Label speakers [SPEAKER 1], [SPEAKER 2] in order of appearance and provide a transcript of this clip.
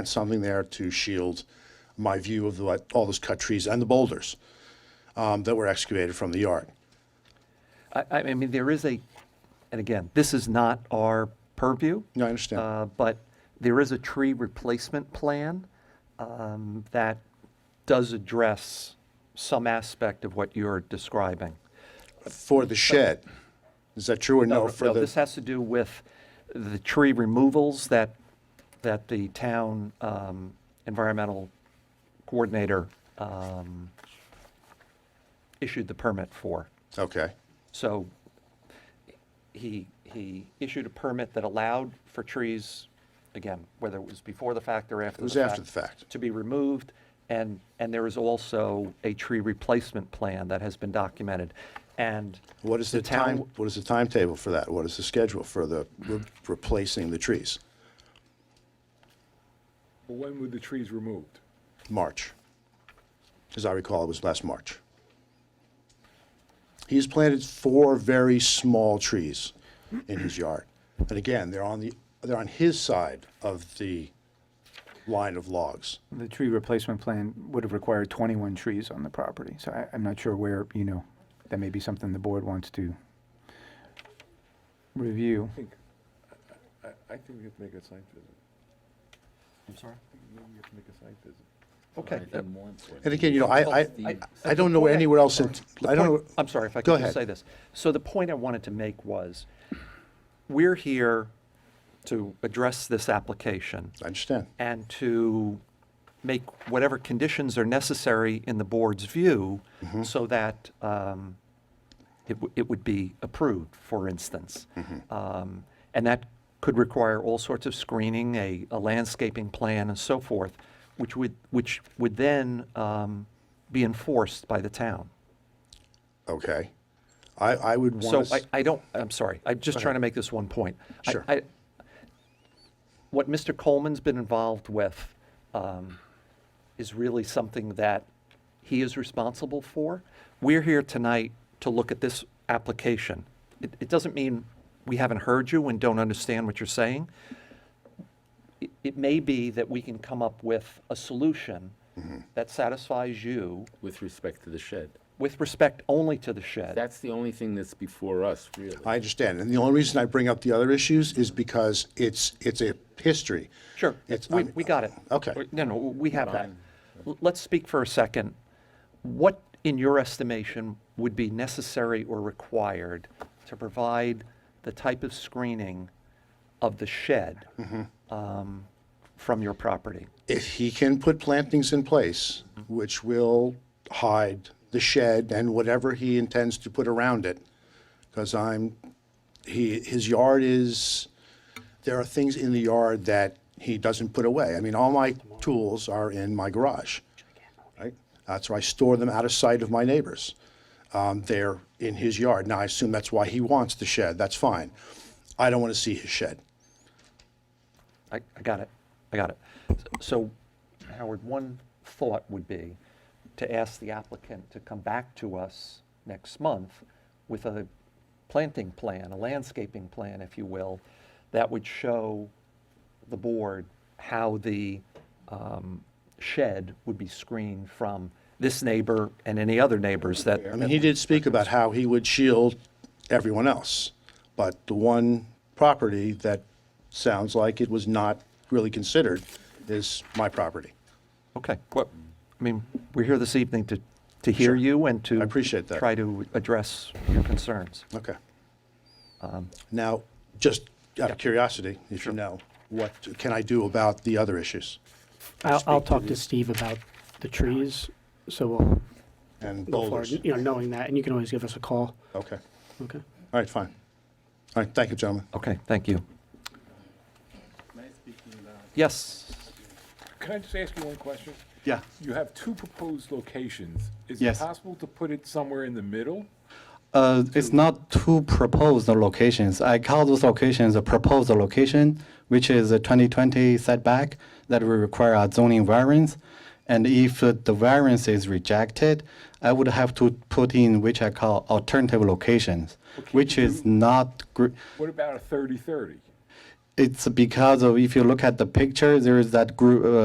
[SPEAKER 1] and something there to shield my view of the, all those cut trees and the boulders um, that were excavated from the yard.
[SPEAKER 2] I, I I mean, there is a, and again, this is not our purview.
[SPEAKER 1] No, I understand.
[SPEAKER 2] uh, But there is a tree replacement plan um, that does address some aspect of what you're describing.
[SPEAKER 1] For the shed, is that true or no? For
[SPEAKER 2] No,
[SPEAKER 1] the-
[SPEAKER 2] this has to do with the tree removals that, that the town um, environmental coordinator um, issued the permit for.
[SPEAKER 1] Okay,
[SPEAKER 2] So he, he issued a permit that allowed for trees, again, whether it was before the fact or after the fact.
[SPEAKER 1] was after the fact.
[SPEAKER 2] To be removed, and, and there is also a tree replacement plan that has been documented. And
[SPEAKER 1] what is the
[SPEAKER 2] town-
[SPEAKER 1] time, what is the timetable for that? What is the schedule for the re- replacing the trees?
[SPEAKER 3] But when were the trees removed?
[SPEAKER 1] March. As I recall, it was last March. He's planted four very small trees in his yard. And again, they're on the, they're on his side of the line of logs.
[SPEAKER 4] The tree replacement plan would have required 21 trees on the property, so I, I'm not sure where, you know, that may be something the board wants to review.
[SPEAKER 3] I think, I, I think we have to make a site visit.
[SPEAKER 2] I'm sorry?
[SPEAKER 3] I think maybe we have to make a site visit.
[SPEAKER 2] Okay. uh,
[SPEAKER 1] And again, you know, I, I, I- I don't know
[SPEAKER 2] Before I-
[SPEAKER 1] anywhere else in,
[SPEAKER 2] the
[SPEAKER 1] I don't
[SPEAKER 2] point-
[SPEAKER 1] know.
[SPEAKER 2] I'm sorry if I
[SPEAKER 1] Go
[SPEAKER 2] could just
[SPEAKER 1] ahead.
[SPEAKER 2] say this. So the point I wanted to make was, we're here to address this application
[SPEAKER 1] I understand.
[SPEAKER 2] and to make whatever conditions are necessary in the board's view so that um, it w- it would be approved, for instance. Um, And that could require all sorts of screening, a a landscaping plan and so forth, which would, which would then um, be enforced by the town.
[SPEAKER 1] Okay. I, I would
[SPEAKER 2] So
[SPEAKER 1] want
[SPEAKER 2] I,
[SPEAKER 1] to,
[SPEAKER 2] I don't, I'm sorry, I'm just trying to make this one point. I-
[SPEAKER 1] Sure.
[SPEAKER 2] I- What Mr. Coleman's been involved with um, is really something that he is responsible for. We're here tonight to look at this application. It, it doesn't mean we haven't heard you and don't understand what you're saying. It, it may be that we can come up with a solution that satisfies you
[SPEAKER 5] with respect to the shed.
[SPEAKER 2] with respect only to the shed.
[SPEAKER 5] That's the only thing that's before us, really.
[SPEAKER 1] I understand. And the only reason I bring up the other issues is because it's, it's a history.
[SPEAKER 2] Sure,
[SPEAKER 1] It's-
[SPEAKER 2] we,
[SPEAKER 1] I'm-
[SPEAKER 2] we got it.
[SPEAKER 1] Okay.
[SPEAKER 2] We- No, no, we have that. L- Let's speak for a second. What, in your estimation, would be necessary or required to provide the type of screening of the shed
[SPEAKER 1] Mm-hmm.
[SPEAKER 2] um, from your property?
[SPEAKER 1] if he can put plantings in place, which will hide the shed and whatever he intends to put around it, because I'm, he, his yard is, there are things in the yard that he doesn't put away. I mean, all my tools are in my garage, right? That's where I store them out of sight of my neighbors. Um, they're in his yard. Now, I assume that's why he wants the shed. That's fine. I don't want to see his shed.
[SPEAKER 2] I, I got it, I got it. S- So, Howard, one thought would be to ask the applicant to come back to us next month with a planting plan, a landscaping plan, if you will, that would show the board how the um, shed would be screened from this neighbor and any other neighbors that,
[SPEAKER 1] I mean, he did speak about how he would shield everyone else, but the one property that sounds like it was not really considered is my property.
[SPEAKER 2] okay. Well, I mean, we're here this evening to, to hear you and to
[SPEAKER 1] I appreciate that.
[SPEAKER 2] try to address your concerns.
[SPEAKER 1] Okay. Now, just out of curiosity, if you know, what can I do about the other issues?
[SPEAKER 6] I'll, I'll talk to Steve about the trees, so we'll
[SPEAKER 1] And
[SPEAKER 6] go forward,
[SPEAKER 1] boulders?
[SPEAKER 6] you know, knowing that, and you can always give us a call,
[SPEAKER 1] Okay.
[SPEAKER 6] okay?
[SPEAKER 1] All right, fine. All right, thank you, gentlemen.
[SPEAKER 2] Okay, thank you. Yes.
[SPEAKER 3] Can I just ask you one question?
[SPEAKER 7] Yeah,
[SPEAKER 3] You have two proposed locations. Is it
[SPEAKER 7] Yes.
[SPEAKER 3] possible to put it somewhere in the middle?
[SPEAKER 7] uh, it's not two proposed locations. I call those locations a proposed location, which is a 2020 setback that will require a zoning variance. And if uh, the variance is rejected, I would have to put in which I call alternative locations, which is not, gr-
[SPEAKER 3] What about a thirty-thirty?
[SPEAKER 7] it's because of, if you look at the picture, there is that group, uh,